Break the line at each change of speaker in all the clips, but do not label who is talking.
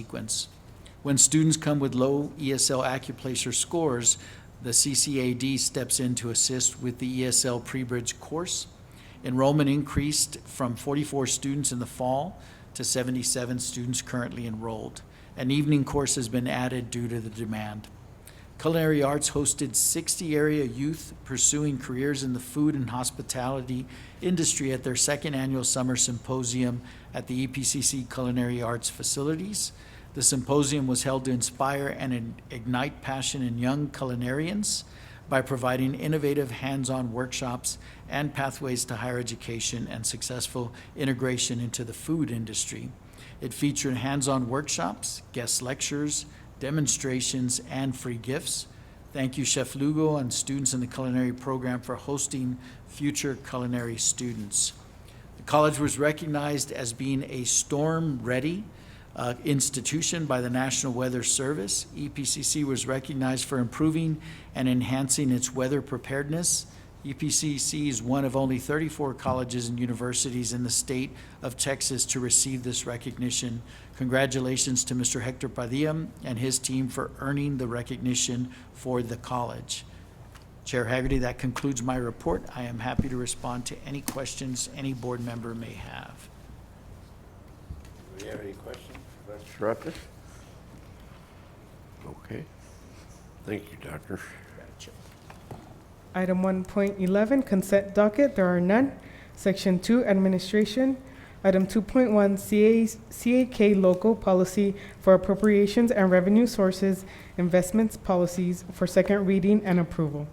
sequence. When students come with low E ESL Accuplacer scores, the CCAD steps in to assist with the ESL pre-bridge course. Enrollment increased from 44 students in the fall to 77 students currently enrolled. An evening course has been added due to the demand. Culinary Arts hosted 60 area youth pursuing careers in the food and hospitality industry at their second annual summer symposium at the E EPCC Culinary Arts facilities. The symposium was held to inspire and in- ignite passion in young culinarians by providing innovative hands-on workshops and pathways to higher education and successful integration into the food industry. It featured hands-on workshops, guest lectures, demonstrations, and free gifts. Thank you, Chef Lugo and students in the culinary program for hosting future culinary students. The college was recognized as being a storm-ready uh, institution by the National Weather Service. E EPCC was recognized for improving and enhancing its weather preparedness. E EPCC is one of only 34 colleges and universities in the state of Texas to receive this recognition. Congratulations to Mr. Hector Padilla and his team for earning the recognition for the college. Chair Haggerty, that concludes my report. I am happy to respond to any questions any board member may have.
Do we have any questions for Dr. Saraka? Okay. Thank you, Doctor.
Item 1.11, consent docket, there are none. Section 2, administration. Item 2.1, CA CAK local policy for appropriations and revenue sources, investments policies for second reading and approval.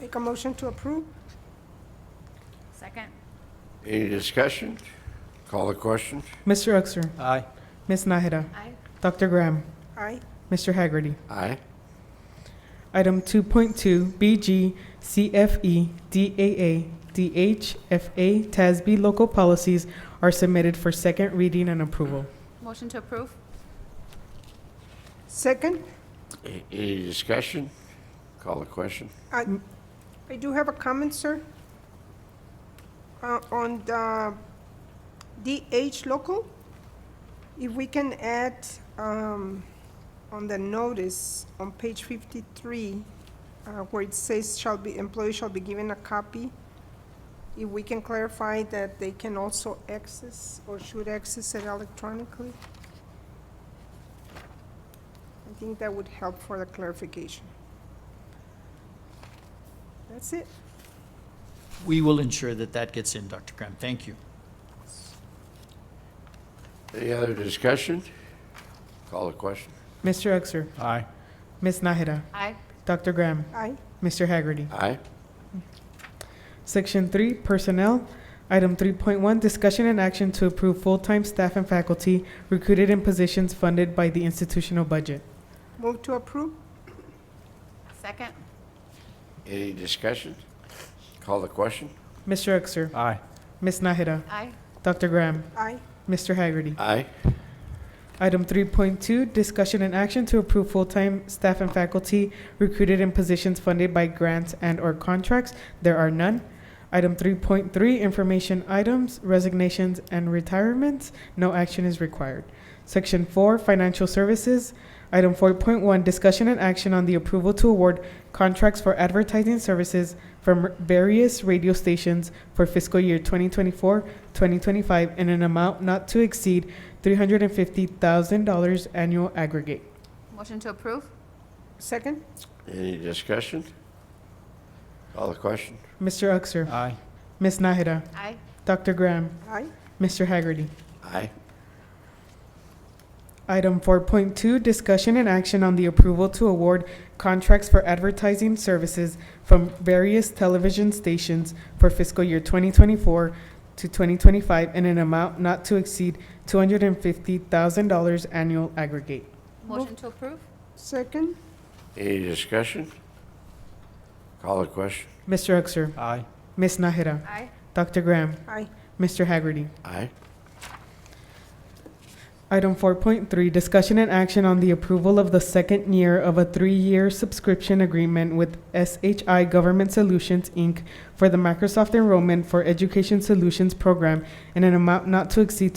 Make a motion to approve?
Second.
Any discussion? Call the question?
Mr. Uxer,
Aye.
Ms. Nahida,
Aye.
Dr. Graham,
Aye.
Mr. Haggerty.
Aye.
Item 2.2, BG, CFE, DAA, DH, FA, TASB local policies are submitted for second reading and approval.
Motion to approve?
Second,
A- Any discussion? Call the question?
I, I do have a comment, sir. Uh, on the DH local, if we can add, um, on the notice on page fifty-three, uh, where it says shall be, employee shall be given a copy, if we can clarify that they can also access or should access it electronically? I think that would help for the clarification. That's it.
We will ensure that that gets in, Dr. Graham. Thank you.
Any other discussion? Call the question?
Mr. Uxer,
Aye.
Ms. Nahida,
Aye.
Dr. Graham,
Aye.
Mr. Haggerty.
Aye.
Section three, personnel. Item three point one, discussion and action to approve full-time staff and faculty recruited in positions funded by the institutional budget.
Move to approve?
Second.
Any discussion? Call the question?
Mr. Uxer,
Aye.
Ms. Nahida,
Aye.
Dr. Graham,
Aye.
Mr. Haggerty.
Aye.
Item three point two, discussion and action to approve full-time staff and faculty recruited in positions funded by grants and/or contracts. There are none. Item three point three, information items, resignations, and retirements. No action is required. Section four, financial services. Item four point one, discussion and action on the approval to award contracts for advertising services from various radio stations for fiscal year 2024-2025 in an amount not to exceed $350,000 annual aggregate.
Motion to approve?
Second?
Any discussion? Call the question?
Mr. Uxer,
Aye.
Ms. Nahida,
Aye.
Dr. Graham,
Aye.
Mr. Haggerty.
Aye.
Item 4.2, discussion and action on the approval to award contracts for advertising services from various television stations for fiscal year 2024 to 2025 in an amount not to exceed $250,000 annual aggregate.
Motion to approve?
Second?
Any discussion? Call the question?
Mr. Uxer,
Aye.
Ms. Nahida,
Aye.
Dr. Graham,
Aye.
Mr. Haggerty.
Aye.
Item 4.3, discussion and action on the approval of the second year of a three-year subscription agreement with SHI Government Solutions, Inc. for the Microsoft Enrollment for Education Solutions Program in an amount not to exceed